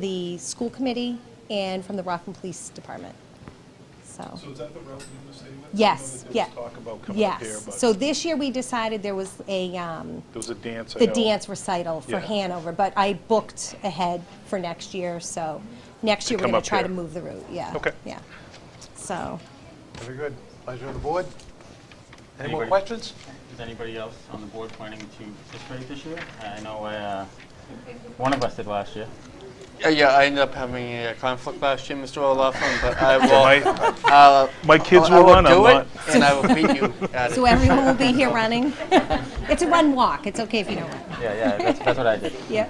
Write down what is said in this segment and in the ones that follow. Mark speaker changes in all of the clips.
Speaker 1: the school committee and from the Rockland Police Department. So,
Speaker 2: So is that the route you're gonna stay with?
Speaker 1: yes, yeah.
Speaker 2: I know that there was talk about coming up here,
Speaker 1: Yes.
Speaker 2: but
Speaker 1: So
Speaker 2: there
Speaker 1: this year, we decided there was a, um,
Speaker 2: was a dance. I
Speaker 1: the
Speaker 2: know.
Speaker 1: dance recital for
Speaker 2: Yeah.
Speaker 1: Hanover, but I booked ahead for next year, so next year, we're
Speaker 2: come
Speaker 1: going
Speaker 2: up
Speaker 1: to try to
Speaker 2: here.
Speaker 1: move the route, yeah.
Speaker 2: Okay.
Speaker 1: Yeah. So,
Speaker 3: Very good. Pleasure of the board. Any more
Speaker 4: Anybody?
Speaker 3: questions?
Speaker 4: Is anybody else on the board planning to participate this year? I know uh, one of us did last year.
Speaker 5: Uh, yeah, I ended up having a conflict last year, Mr. O'Laughlin, but I will.
Speaker 2: My,
Speaker 5: Uh,
Speaker 2: my kids
Speaker 5: I
Speaker 2: will run, I'm
Speaker 5: do
Speaker 2: not.
Speaker 5: it, and I will beat you at it.
Speaker 1: so everyone will be here running. It's a run walk, it's okay if you don't run.
Speaker 4: Yeah, yeah, that's, that's what I did.
Speaker 1: Yeah.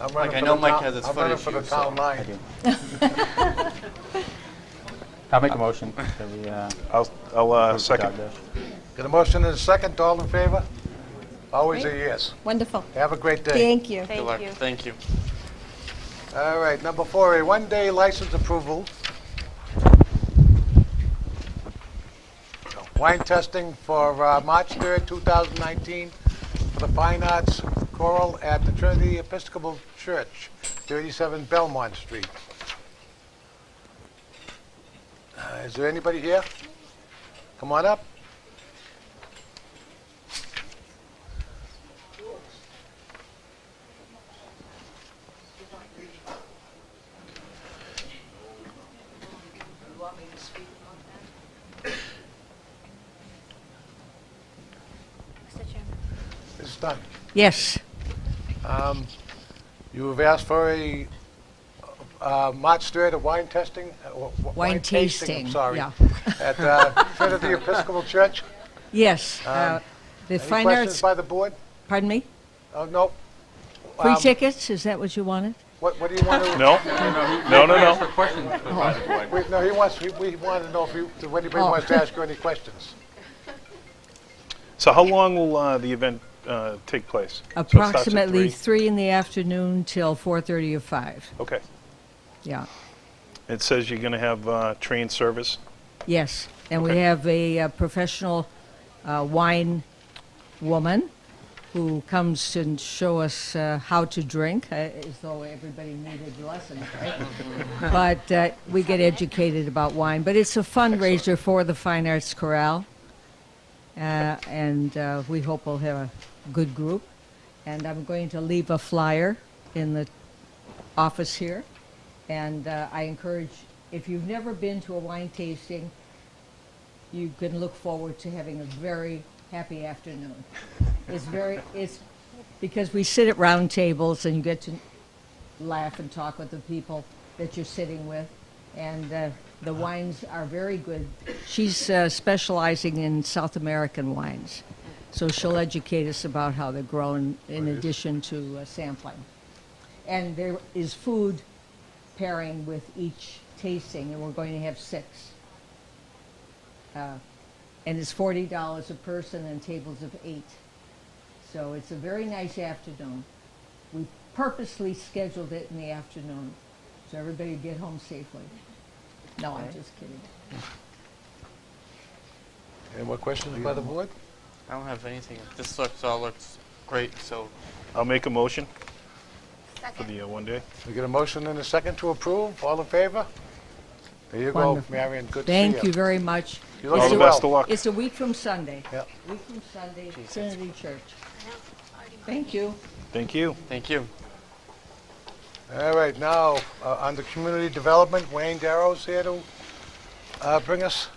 Speaker 3: I'm
Speaker 5: Like,
Speaker 3: running
Speaker 5: I
Speaker 3: for
Speaker 5: know
Speaker 3: the
Speaker 5: Mike
Speaker 3: town-
Speaker 5: has his
Speaker 3: I'm
Speaker 5: foot
Speaker 3: running for the
Speaker 5: issues, so
Speaker 3: town
Speaker 4: I
Speaker 3: line.
Speaker 4: do. I'll make a motion that we, uh,
Speaker 2: I'll, I'll uh,
Speaker 4: approve the dog
Speaker 2: second.
Speaker 4: days.
Speaker 3: Got a motion and a second, all in favor? Always a
Speaker 1: Great.
Speaker 3: yes.
Speaker 1: Wonderful.
Speaker 3: Have a great day.
Speaker 1: Thank you.
Speaker 5: Good luck. Thank you.
Speaker 3: All right, number four, a one-day license approval. Wine testing for uh, March 3rd, 2019, for the Fine Arts Choral at the Trinity Episcopal Church, 37 Belmont Street. Uh, Is there anybody here? Come on up. It's done. Um,
Speaker 6: Yes,
Speaker 3: You have asked for a, uh, March 3rd, a wine testing? uh, w- w-
Speaker 6: Wine
Speaker 3: I'm
Speaker 6: tasting,
Speaker 3: sorry.
Speaker 6: yeah.
Speaker 3: At uh, Trinity Episcopal Church.
Speaker 6: yes. uh, The
Speaker 3: Any
Speaker 6: fine
Speaker 3: questions
Speaker 6: arts,
Speaker 3: by the board?
Speaker 6: pardon me?
Speaker 3: Oh, no.
Speaker 6: Free
Speaker 3: Um,
Speaker 6: tickets, is that what you wanted?
Speaker 3: What what do you want to,
Speaker 2: No? No, no,
Speaker 4: Ask for
Speaker 2: no.
Speaker 4: questions for by the board.
Speaker 3: we- no, he wants, he- we want to know if you, if anybody
Speaker 6: Oh.
Speaker 3: wants to ask you any questions.
Speaker 2: So how long will uh, the event uh, take place? So it starts at
Speaker 6: Approximately
Speaker 2: three?
Speaker 6: three in the afternoon till 4:30 or five.
Speaker 2: Okay.
Speaker 6: yeah.
Speaker 2: It says you're going to have uh, train service.
Speaker 6: Yes, and we
Speaker 2: Okay.
Speaker 6: have a uh, professional uh, wine woman who comes and show us uh, how to drink, uh, as though everybody needed lessons, right? but uh, we get educated about wine. But it's a fundraiser for the Fine Arts Chorale, uh, and uh, we hope we'll have a good group. And I'm going to leave a flyer in the office here. And uh, I encourage, if you've never been to a wine tasting, you can look forward to having a very happy afternoon. It's very, it's because we sit at round tables and you get to laugh and talk with the people that you're sitting with. And uh, the wines are very good. She's uh, specializing in South American wines. So she'll educate us about how they're grown in addition to uh, sampling. And there is food pairing with each tasting, and we're going to have six. Uh, And it's forty dollars a person and tables of eight. So it's a very nice afternoon. We purposely scheduled it in the afternoon, so everybody would get home safely. No, I'm just kidding.
Speaker 3: Any more questions by the board?
Speaker 5: I don't have anything. This looks all looks great. So
Speaker 2: I'll make a motion for the uh, one day.
Speaker 3: We get a motion and a second to approve, all in favor? There you go,
Speaker 6: Wonderful.
Speaker 3: Marion, good to see you.
Speaker 6: Thank you very much.
Speaker 3: You
Speaker 6: It's
Speaker 2: All
Speaker 3: look
Speaker 2: the
Speaker 6: a-
Speaker 3: well.
Speaker 2: best of luck.
Speaker 6: It's a week from Sunday.
Speaker 3: Yep.
Speaker 6: Week from Sunday, Trinity Church. Thank you.
Speaker 2: Thank you.
Speaker 5: thank you.
Speaker 3: All right, now, uh, on the community development, Wayne Darrow's here to uh, bring us.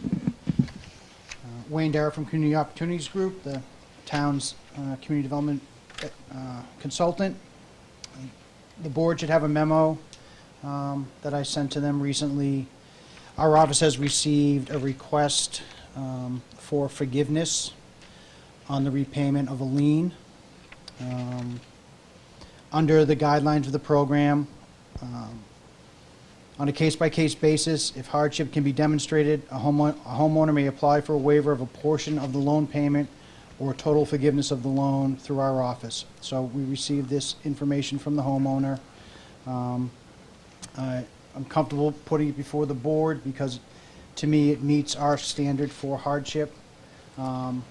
Speaker 7: Uh, Wayne Darrow from Community Opportunities Group, the town's uh, community development uh, consultant. The board should have a memo um, that I sent to them recently. Our office has received a request um, for forgiveness on the repayment of a lien. Um, Under the guidelines of the program, on a case-by-case basis, if hardship can be demonstrated, a homeowner, a homeowner may apply for a waiver of a portion of the loan payment or total forgiveness of the loan through our office. So we received this information from the homeowner. Um, I- I'm comfortable putting it before the board because, to me, it meets our standard for hardship. Um,